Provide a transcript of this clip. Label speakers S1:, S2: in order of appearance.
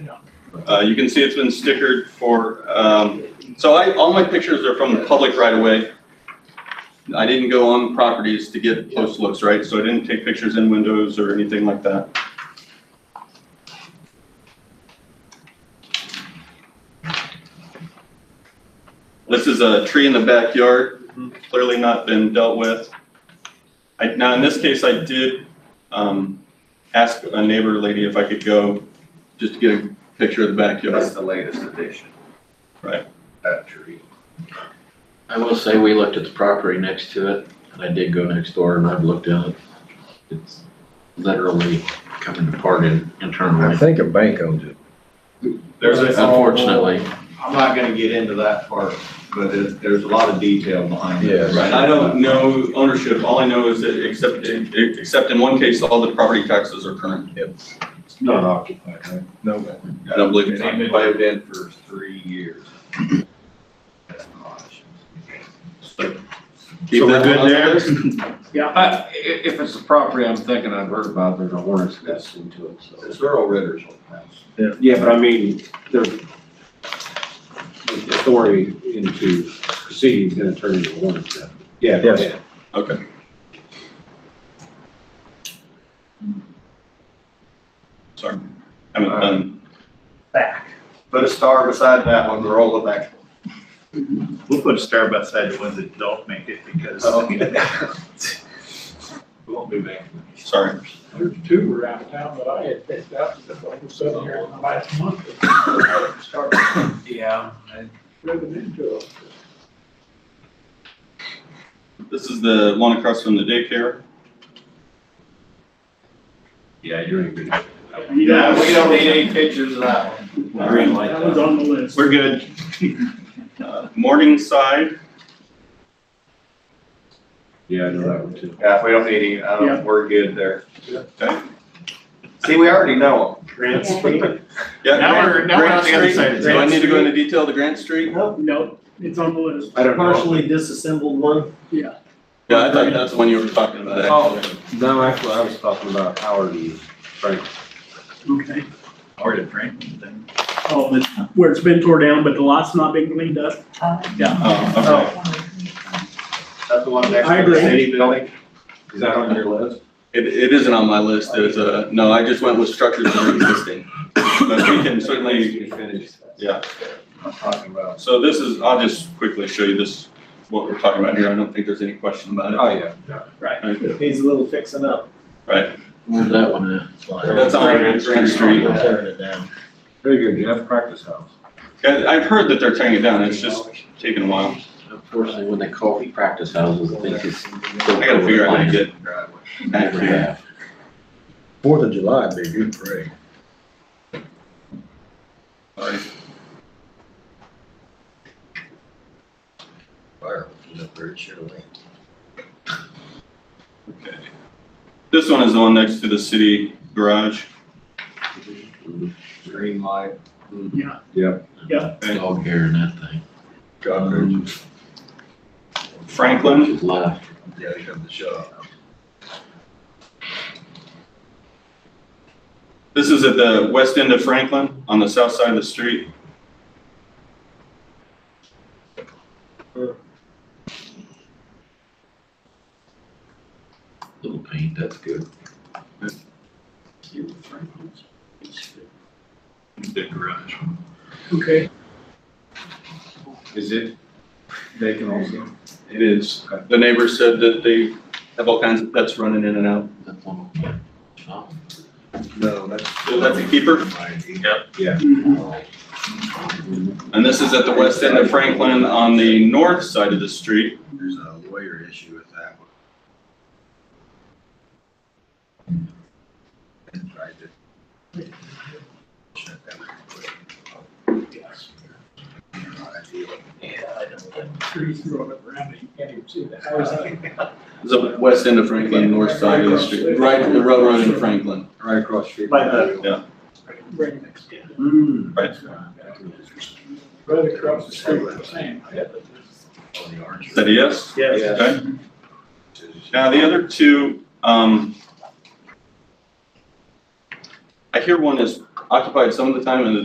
S1: Uh, you can see it's been stickered for, um, so I, all my pictures are from the public right away. I didn't go on properties to get close looks, right? So I didn't take pictures in windows or anything like that. This is a tree in the backyard, clearly not been dealt with. I, now, in this case, I did, um, ask a neighbor lady if I could go just to get a picture of the
S2: That's
S1: backyard.
S2: the latest addition.
S1: Right.
S2: That tree.
S3: I will say, we looked at the property next to it, and I did go next door and I've looked at it. It's literally coming apart in-
S4: I
S3: internally,
S4: think a bank owns it.
S2: There's a.
S3: unfortunately.
S2: I'm not gonna get into that part, but there's, there's a lot of detail behind it.
S4: Yes.
S1: Right, I don't know ownership, all I know is that except, except in one case, all the property taxes are current.
S5: Not occupied, right?
S4: No.
S1: I don't believe
S2: It's
S1: it's-
S2: been lived in for three years. That's not-
S1: So
S5: So
S1: keep
S5: we're
S1: that
S5: good
S1: on the
S5: there?
S1: list.
S6: Yeah, I, i- Uh, if it's a property I'm thinking I've heard about, there's a warrant attached to it, so.
S2: It's Earl Ritter's old house.
S6: Yeah, but I mean, there's authority into proceedings gonna turn into a warrant. attachment. Yeah. go
S4: Yes.
S6: ahead.
S1: Okay. Sorry, haven't done,
S2: Uh, Put a star beside that one, roll it back.
S7: We'll put a star beside the ones that don't make it because we won't be back.
S1: sorry.
S8: There's two around town that I had picked up, that all of a sudden here in the last month. Started
S6: Yeah.
S8: driven into it.
S1: This is the one across from the daycare.
S2: Yeah, you're in good.
S8: You
S2: Yeah,
S8: don't-
S2: we don't need any pictures of that one.
S1: Green
S8: That was on the list.
S7: We're good.
S1: Uh, Morningside,
S6: Yeah, I know that one too.
S2: Yeah, we don't need any, I
S8: Yeah.
S2: don't, we're good there.
S1: okay,
S2: See, we already know
S7: Grant
S9: Yeah.
S7: Street.
S1: yeah.
S7: Now
S1: Grant-
S7: we're- now we're on
S1: Grant
S7: the other
S1: Street.
S7: side of
S1: Do I
S7: Grant
S1: need to go
S7: Street.
S1: into detail to Grant Street?
S8: No, it's on the list,
S6: I don't know.
S7: Partially disassembled one.
S8: yeah.
S1: Yeah, I thought that's the one you were talking about,
S6: Oh.
S1: actually.
S6: No, actually, I was talking about Howard and Frank.
S8: Okay.
S7: Or to Franklin then.
S8: Oh, but where it's been tore down, but the lot's not been cleaned up.
S1: Oh, okay.
S2: them. That's the one next
S8: I
S2: to the
S8: agree.
S2: city building.
S6: Is that on your list?
S1: It, it isn't on my list, it's a, no, I just went with structures that are existing. But we can certainly, yeah,
S2: I'm talking about.
S1: so this is, I'll just quickly show you this, what we're talking about here, I don't think there's any question about it.
S2: Oh, yeah.
S7: Needs a little fixing up.
S1: Right,
S3: Where's that one at?
S1: that's on Grand Street.
S3: Tearing it down.
S6: Very good, Jeff, practice house.
S1: Yeah, I've heard that they're tearing it down, it's just taking a while.
S3: Unfortunately, when they call for practice houses, I think it's.
S1: I gotta figure out how to get
S2: Driveway.
S1: back here.
S4: Fourth of July would be a good parade.
S1: Sorry.
S4: Fire was up there, it should have went.
S1: Okay. This one is the one next to the city garage.
S2: Green light.
S8: Yeah.
S3: It's all here in that thing.
S4: Cockroaches,
S1: Franklin,
S3: Just left.
S4: yeah, you have the shop.
S1: this is at the west end of Franklin, on the south side of the street.
S3: Little paint, that's good.
S7: The garage.
S8: Okay.
S6: Is it vacant also?
S1: It is. The neighbor said that they have all kinds of pets running in and out.
S3: That's one. of them. Oh.
S6: No, that's.
S1: So that's a keeper.
S8: Mhm.
S1: And this is at the west end of Franklin on the north side of the street.
S4: There's a lawyer issue with that one. And tried to- Shut that one quick.
S8: Trees growing up around it, you can't even see the house.
S1: It's the west end of Franklin, north side of the street, right at the railroad in Franklin.
S6: Right across the street.
S7: By
S8: uh,
S7: the-
S8: Right next to it.
S6: Mm.
S1: Right.
S8: Right across the street, the same.
S4: On the orange.
S1: Is that a yes?
S7: Yes.
S1: Okay. Now, the other two, um, I hear one is occupied some of the time and the